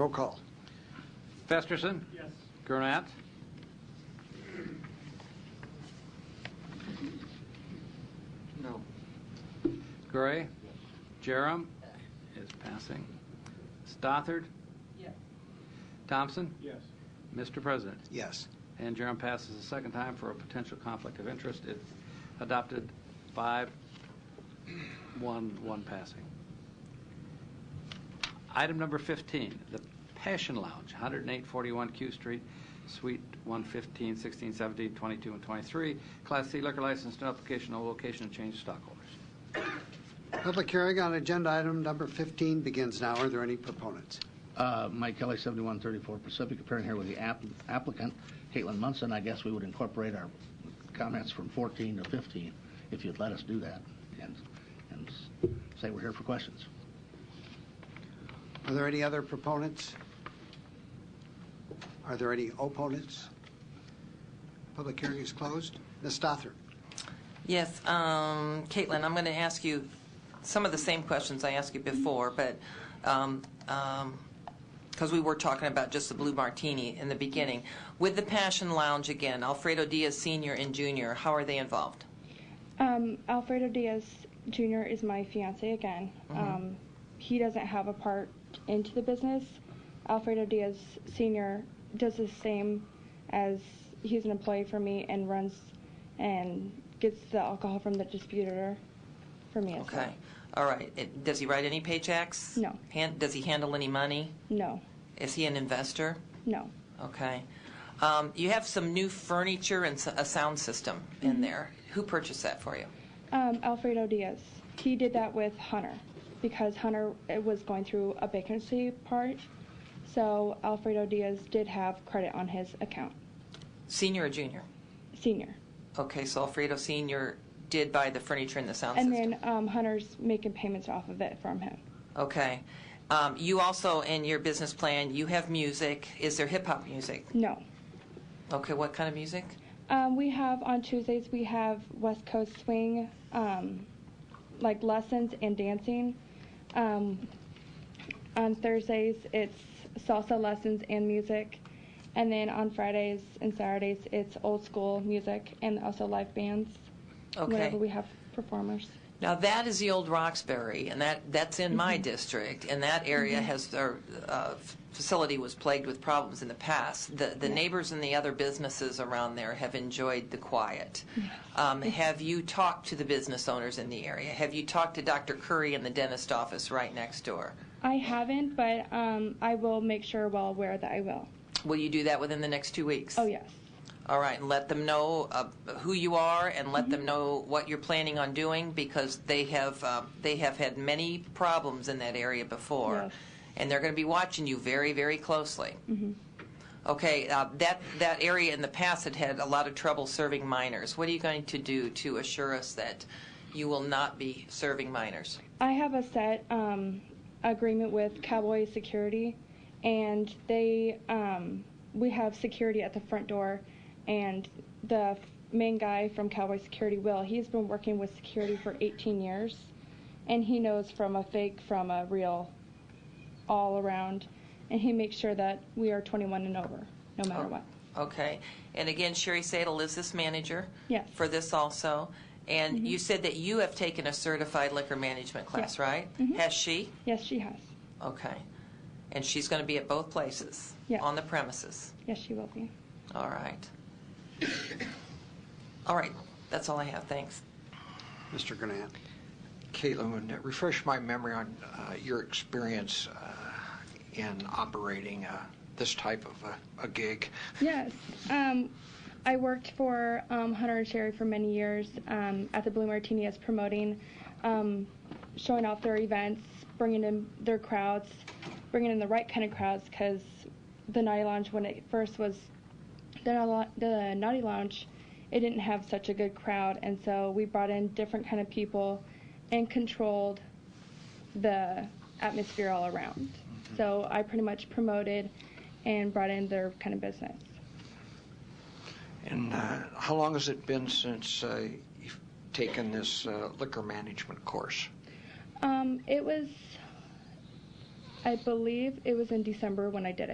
Roll call. Festerson? Yes. Gurnat? No. Gray? Jerem? Is passing. Stothard? Yes. Thompson? Yes. Mr. President? Yes. And Jerem passes a second time for a potential conflict of interest. It adopted five, one, one passing. Item number 15, the Passion Lounge, 10841 Q Street, Suite 115, 16, 17, 22, and 23. Class C liquor license, no application, no location, and change of stockholders. Public hearing on agenda item number 15 begins now. Are there any proponents? Uh, Mike Kelly, 7134 Pacific, appearing here with the app- applicant, Caitlin Munson. I guess we would incorporate our comments from 14 to 15, if you'd let us do that, and and s- say we're here for questions. Are there any other proponents? Are there any opponents? Public hearing is closed. Ms. Stothard? Yes, um, Caitlin, I'm going to ask you some of the same questions I asked you before, but, because we were talking about just the Blue Martini in the beginning. With the Passion Lounge again, Alfredo Diaz Senior and Junior, how are they involved? Um, Alfredo Diaz Jr. is my fiance again. Um, he doesn't have a part into the business. Alfredo Diaz Sr. does the same as he's an employee for me and runs and gets the alcohol from the distributor for me as Okay, all right. It- Does he write any paychecks? No. Han- Does he handle any money? well. Is he an investor? No, no. Okay. Um, You have some new furniture and s- a sound system in there. Who purchased that for you? Um, Alfredo Diaz. He did that with Hunter because Hunter uh, was going through a vacancy part. So Alfredo Diaz did have credit on his account, Senior or junior? senior. Okay, so Alfredo Senior did buy the furniture and the sound And system. then um, Hunter's making payments off of it from him. okay, um, you also in your business plan you have music. Is there hip hop music? No. Okay, what kind of music? Um, we have on Tuesdays we have West Coast swing, um, like lessons and dancing. Um, on Thursdays it's salsa lessons and music, and then on Fridays and Saturdays it's old school music and also live bands. Okay, Whenever we have performers. now that is the old Roxbury, and that that's in my Mm-hmm. district, and that area has our uh, f- facility was plagued with problems in the past. The the neighbors and the other businesses around there have enjoyed the quiet. Um, have you talked to the business owners in the area? Have you talked to Dr. Curry in the dentist office right next door? I haven't, but um, I will make sure well aware that I will. Will you do that within the next two weeks? Oh yes. All right, and let them know uh, who you are, and let Mm-hmm. them know what you're planning on doing, because they have uh, they have had many problems in that area before, Yes. Mm-hmm. and they're going to be watching you very, very closely. Okay, uh, that that area in the past had had a lot of trouble serving minors. What are you going to do to assure us that you will not be serving minors? I have a set um, agreement with Cowboy Security, and they um, we have security at the front door, and the f- main guy from Cowboy Security, Will, he's been working with security for 18 years, and he knows from a fake from a real, all around, and he makes sure that we are 21 and over, no matter Oh. what. Okay, and again, Sherry Sadle is this manager. Yes. Mm-hmm. For this also, and you said that you have taken a certified liquor management class, Yeah. right? Has she? Yes, she has. Okay, and she's going to be at both places. Yeah. On the premises. Yes, she will be. All right. all right, that's all I have. Thanks. Mr. Gurnett? Caitlin, refresh my memory on uh, your experience uh, in operating uh, this type of a- a gig. Yes. Um, I worked for um, Hunter and Sherry for many years um, at the Blue Martini as promoting, um, showing off their events, bringing in their crowds, bringing in the right kind of crowds because the Naughty Lounge, when it first was the, Naughty Lou- the Naughty Lounge, it didn't have such a good crowd. And so we brought in different kind of people and controlled the atmosphere all around. So I pretty much promoted and brought in their kind of business. And uh, how long has it been since uh, you've taken this uh, liquor management course? Um, it was I believe it was in December when I did it.